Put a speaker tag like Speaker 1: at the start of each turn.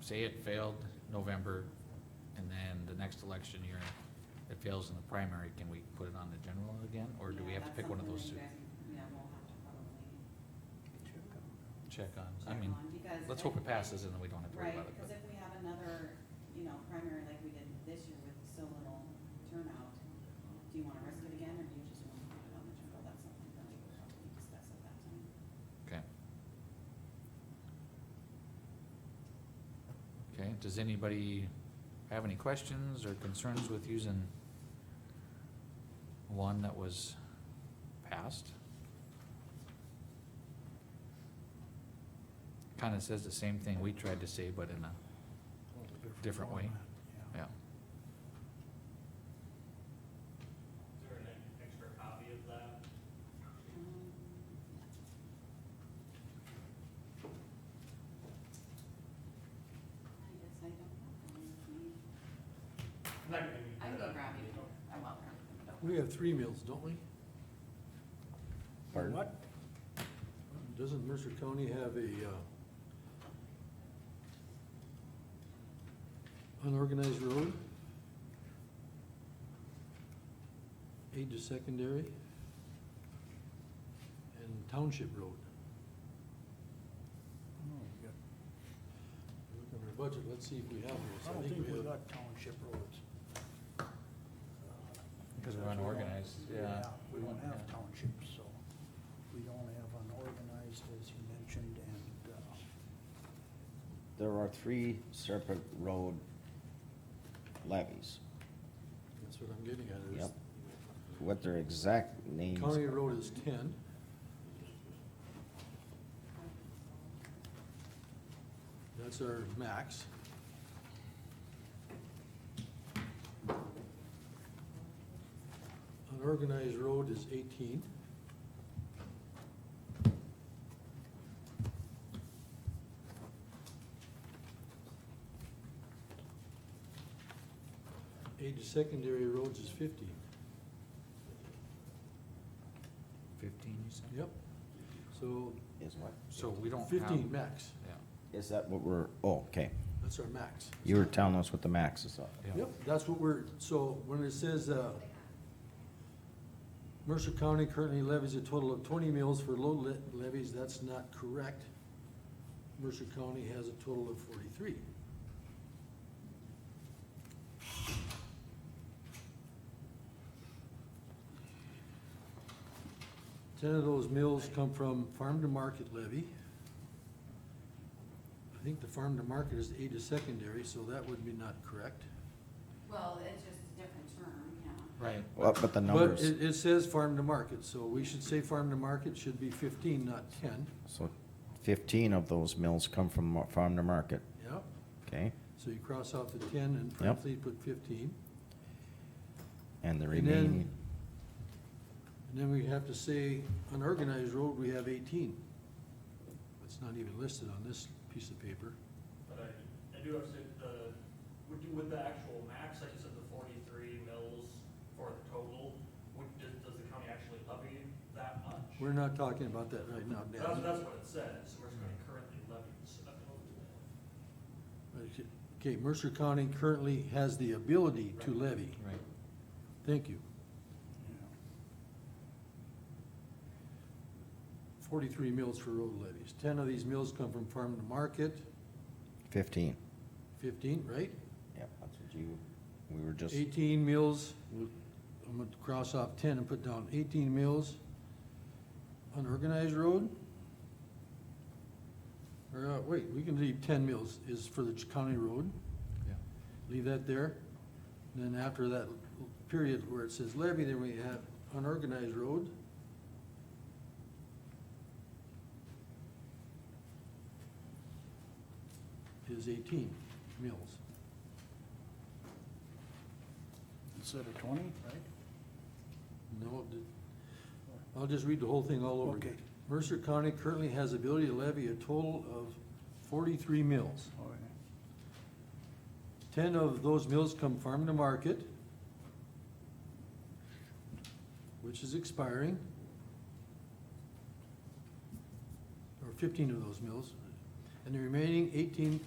Speaker 1: say it failed November, and then the next election year, it fails in the primary, can we put it on the general again, or do we
Speaker 2: Yeah,
Speaker 1: have to
Speaker 2: that's
Speaker 1: pick one of
Speaker 2: something
Speaker 1: those two?
Speaker 2: that you guys- Yeah, we'll have to probably
Speaker 1: Check on, I
Speaker 2: check
Speaker 1: mean,
Speaker 2: on, because
Speaker 1: let's
Speaker 2: I-
Speaker 1: hope it passes and then we don't have to worry
Speaker 2: Right,
Speaker 1: about it,
Speaker 2: because
Speaker 1: but,
Speaker 2: if we have another, you know, primary like we did this year with so little turnout, do you wanna risk it again, or do you just wanna put it on the general, that's something that we will probably discuss at that time.
Speaker 1: okay. Okay, does anybody have any questions or concerns with using one that was passed? Kinda says the same thing we tried to say, but in a Different way. Yeah.
Speaker 3: Is there an extra copy of that?
Speaker 2: Um, I guess I don't have one with me.
Speaker 3: I'm not gonna need
Speaker 2: I can go
Speaker 3: that.
Speaker 2: grab you, I will grab you. but don't-
Speaker 4: We have three meals, don't we?
Speaker 1: Pardon?
Speaker 4: What? Doesn't Mercer County have a, uh, unorganized road? Aid to secondary? And township road? Look at our budget, let's see if we have those.
Speaker 5: I don't think
Speaker 4: we
Speaker 5: we
Speaker 4: have-
Speaker 5: got township roads.
Speaker 1: Because we're unorganized, yeah.
Speaker 5: We don't have
Speaker 1: Yeah.
Speaker 5: townships, so we don't have unorganized, as you mentioned, and, uh,
Speaker 6: There are three Serpent Road levies.
Speaker 4: That's what I'm getting at, is
Speaker 6: Yep. What their exact names
Speaker 4: county
Speaker 6: are.
Speaker 4: road is ten. That's our max. Unorganized road is eighteen. Aid to secondary roads is fifteen.
Speaker 1: Fifteen, you said?
Speaker 4: Yep. So
Speaker 6: Is what,
Speaker 1: So we don't have.
Speaker 4: fifteen max,
Speaker 1: Yeah,
Speaker 6: is that what we're, oh, okay.
Speaker 4: that's our max.
Speaker 6: You were telling us what the maxes are.
Speaker 1: yeah.
Speaker 4: Yep, that's what we're, so when it says, uh, Mercer County currently levies a total of twenty mills for low le- levies, that's not correct. Mercer County has a total of forty-three. Ten of those mills come from farm-to-market levy. I think the farm-to-market is aid to secondary, so that would be not correct.
Speaker 2: Well, it's just a different term, yeah.
Speaker 1: Right,
Speaker 6: What, but the
Speaker 4: But
Speaker 6: numbers,
Speaker 4: it, it says farm to market, so we should say farm to market should be fifteen, not ten.
Speaker 6: so fifteen of those mills come from mar- farm to market,
Speaker 4: Yep.
Speaker 6: okay?
Speaker 4: So you cross out the ten and parentheses put fifteen.
Speaker 6: And the
Speaker 4: And then-
Speaker 6: remaining,
Speaker 4: And then we have to say unorganized road, we have eighteen. It's not even listed on this piece of paper.
Speaker 3: But I, I do have to, say, the, would you, with the actual max, like you said, the forty-three mills for the total, would, does, does the county actually levy that much?
Speaker 4: We're not talking about that right now,
Speaker 3: That's,
Speaker 4: Dan.
Speaker 3: that's what it says, Mercer County currently levies. a total.
Speaker 4: Okay, Mercer County currently has the ability to
Speaker 3: Right.
Speaker 4: levy.
Speaker 1: right.
Speaker 4: Thank you.
Speaker 5: you know,
Speaker 4: Forty-three mills for road levies. Ten of these mills come from farm to market,
Speaker 6: fifteen.
Speaker 4: fifteen, right?
Speaker 6: Yep, that's what you, we were just,
Speaker 4: Eighteen mills, I'm gonna cross off ten and put down eighteen mills. Unorganized road? Or, uh, wait, we can leave ten mills is for the county road,
Speaker 1: Yeah.
Speaker 4: leave that there. And Then after that period where it says levy, then we have unorganized road. Is eighteen mills.
Speaker 5: instead of twenty, right?
Speaker 4: No, it did- I'll just read the whole thing all over again.
Speaker 5: Okay.
Speaker 4: Mercer County currently has ability to levy a total of forty-three mills.
Speaker 5: All right.
Speaker 4: Ten of those mills come farm to market, which is expiring. Or fifteen of those mills, and the remaining eighteen